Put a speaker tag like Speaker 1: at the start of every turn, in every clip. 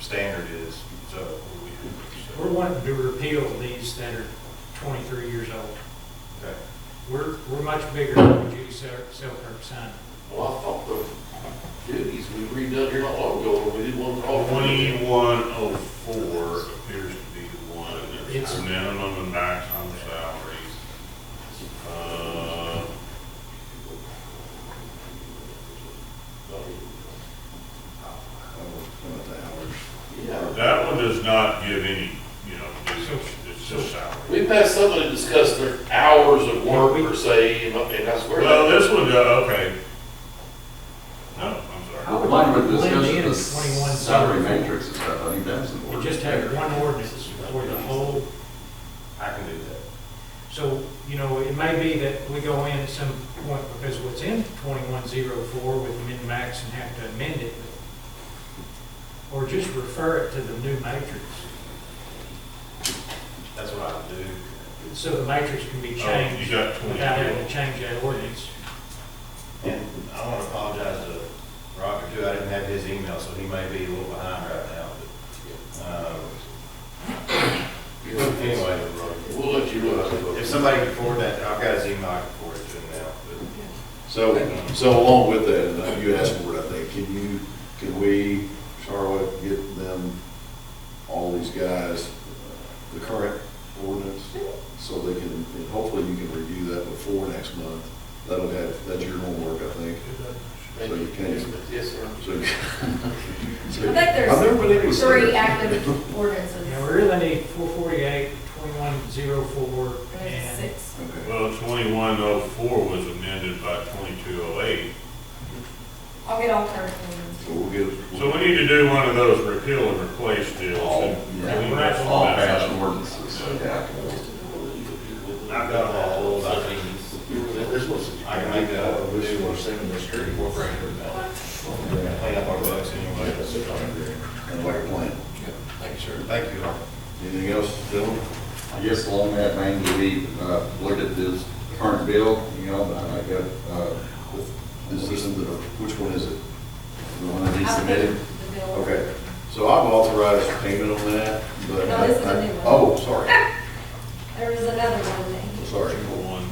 Speaker 1: standard is, so what we do. so,
Speaker 2: We're wanting to repeal these that are 23 years old.
Speaker 1: okay.
Speaker 2: We're, we're much bigger than what Judy Sel- Selkirk signed.
Speaker 3: Well, I thought the duties we redone here not long ago, when we did one for all.
Speaker 4: Twenty-one oh four appears to be the one, it's
Speaker 2: It's-
Speaker 4: minimum and maximum salaries. Uh,
Speaker 3: Yeah,
Speaker 4: that one does not give any, you know,
Speaker 2: So-
Speaker 4: it's, it's just salary.
Speaker 3: we've had somebody discuss their hours of work per se, and I- and I swear.
Speaker 4: Well,
Speaker 3: that-
Speaker 4: this one, does okay. No, I'm sorry.
Speaker 2: I would
Speaker 5: Mine would
Speaker 2: blend
Speaker 5: discuss
Speaker 2: in
Speaker 5: the
Speaker 2: at 21
Speaker 5: salary matrix and stuff, I think that's
Speaker 2: We
Speaker 5: important.
Speaker 2: just have one ordinance for the whole,
Speaker 1: I can do that.
Speaker 2: so, you know, it may be that we go in at some point because what's in 2104 with min-max and have to amend it. Or just refer it to the new matrix,
Speaker 1: That's what I would do.
Speaker 2: so the matrix can be
Speaker 4: Oh, you
Speaker 2: changed
Speaker 4: got
Speaker 2: without having
Speaker 4: twenty-two.
Speaker 2: to change that ordinance.
Speaker 1: And I want to apologize to Roger too, I didn't have his email, so he may be a little behind right now, but, um, anyway.
Speaker 3: We'll let you know. how it
Speaker 1: If
Speaker 3: goes.
Speaker 1: somebody can forward that, I've got his email, I can forward it to him now, but
Speaker 6: So, so along with that, and, uh, you asked for it, I think, can you, can we, Charlotte, get them, all these guys, uh, the current ordinance? So they can, and hopefully you can review that before next month. That'll have, that's your homework, I think. So you can,
Speaker 3: Yes, sir.
Speaker 6: so. you- so-
Speaker 7: I think
Speaker 6: I remember when it
Speaker 7: there's
Speaker 6: was-
Speaker 7: three active ordinances.
Speaker 2: Now, we really need 448, 2104,
Speaker 7: There's
Speaker 2: and
Speaker 7: six.
Speaker 6: Okay.
Speaker 4: Well, twenty-one oh four was amended by twenty-two oh eight.
Speaker 7: I'll get all current ordinances.
Speaker 6: So we'll get.
Speaker 4: So we need to do one of those repeal and replace deals.
Speaker 6: All,
Speaker 4: and
Speaker 6: yeah.
Speaker 4: clean that
Speaker 5: All
Speaker 4: mess up.
Speaker 5: fast ordinances, so yeah.
Speaker 1: I've got all those, I think. I can make that up. Incorporate it now. Clean up our books anyway.
Speaker 6: And like a plan.
Speaker 1: Thank you all.
Speaker 6: Anything else, gentlemen?
Speaker 5: I guess along that vein, we, uh, looked at this current bill, you know, but I got, uh,
Speaker 6: Is this, in the- which one is it?
Speaker 5: the one that he
Speaker 7: I
Speaker 5: submitted.
Speaker 7: think the bill-
Speaker 6: Okay, so I've authorized payment on that, but.
Speaker 7: No, this is a new one.
Speaker 6: Oh, sorry,
Speaker 7: There was another one that he.
Speaker 6: sorry.
Speaker 4: One.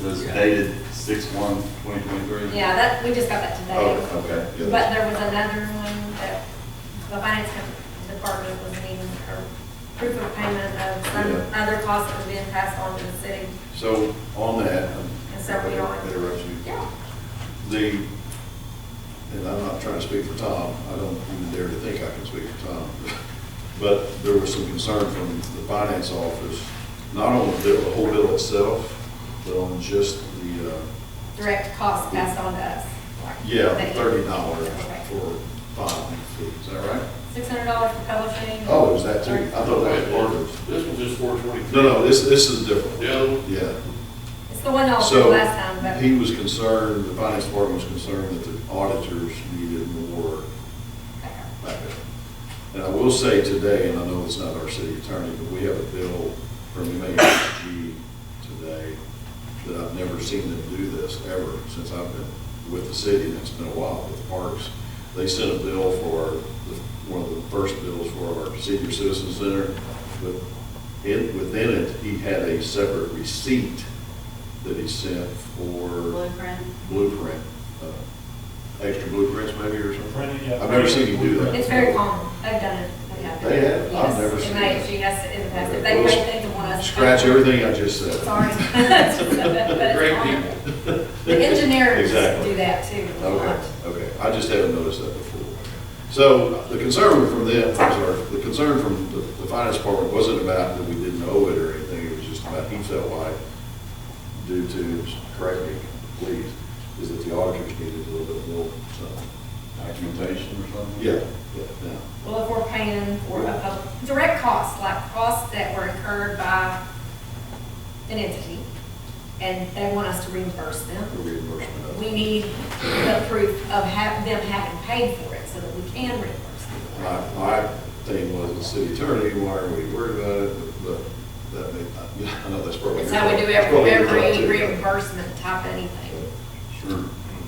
Speaker 5: So it's dated six one twenty twenty-three?
Speaker 7: Yeah, that, we just got that today.
Speaker 6: Oh, okay. yeah.
Speaker 7: But there was another one that the finance com- department was needing for proof of payment of some other costs that were being passed on to the city.
Speaker 6: So on that. um,
Speaker 7: And so we don't-
Speaker 6: Interrupt you.
Speaker 7: Yeah.
Speaker 6: The, and I'm not trying to speak for Tom, I don't even dare to think I can speak for Tom. But there was some concern from the finance office, not on the bill, the whole bill itself, but on just the, uh,
Speaker 7: Direct costs passed on to us. like,
Speaker 6: Yeah,
Speaker 7: that he-
Speaker 6: thirty dollars
Speaker 7: Okay.
Speaker 6: for filing fee, is that right?
Speaker 7: Six hundred dollars for publishing.
Speaker 6: Oh, it was that too? I thought that was part of
Speaker 3: This one's just four twenty-three.
Speaker 6: No, no, this, this is different,
Speaker 3: The other one,
Speaker 6: yeah.
Speaker 7: It's the one that was
Speaker 6: So,
Speaker 7: last time, but.
Speaker 6: he was concerned, the finance department was concerned that the auditors needed more backup. And I will say today, and I know it's not our city attorney, but we have a bill from MHG today that I've never seen them do this ever since I've been with the city, and it's been a while with parks. They sent a bill for, the- one of the first bills for our senior citizen center, but in, within it, he had a separate receipt that he sent for
Speaker 8: Blueprint.
Speaker 6: blueprint, uh, extra blueprints maybe or something. I've
Speaker 4: I've
Speaker 6: never seen you do that.
Speaker 7: It's very common, they've done it, they have.
Speaker 6: They have? I've
Speaker 7: Yes.
Speaker 6: never seen
Speaker 7: And
Speaker 6: it.
Speaker 7: they, she has to, in the past,
Speaker 6: Okay,
Speaker 7: they may
Speaker 6: we'll
Speaker 7: think the one us.
Speaker 6: Scratch everything I just said.
Speaker 7: Sorry. But
Speaker 3: great
Speaker 7: it's common.
Speaker 3: people.
Speaker 7: The engineers
Speaker 6: Exactly.
Speaker 7: do that too. a lot.
Speaker 6: Okay, okay, I just haven't noticed that before. So the concern from them, I'm sorry, the concern from the the finance department wasn't about that we didn't owe it or anything, it was just about he felt like, due to, correct me, please, is that the auditors needed a little bit more, so,
Speaker 5: Documentation or something?
Speaker 6: yeah, yeah, now.
Speaker 7: Well, if we're paying for a, a direct costs, like costs that were incurred by an entity, and they want us to reimburse them,
Speaker 6: The reimbursement of it.
Speaker 7: we need the proof of ha them having paid for it so that we can reimburse them.
Speaker 6: My, my thing was, the city attorney, why are we worried about it, but that may, not- I know that's probably.
Speaker 7: It's how we do every,
Speaker 6: probably your thought
Speaker 7: every
Speaker 6: too.
Speaker 7: reimbursement type anything.
Speaker 5: Sure.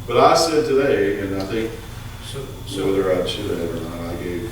Speaker 6: But I said today, and I think
Speaker 2: so, so.
Speaker 6: whether I should have or not, I gave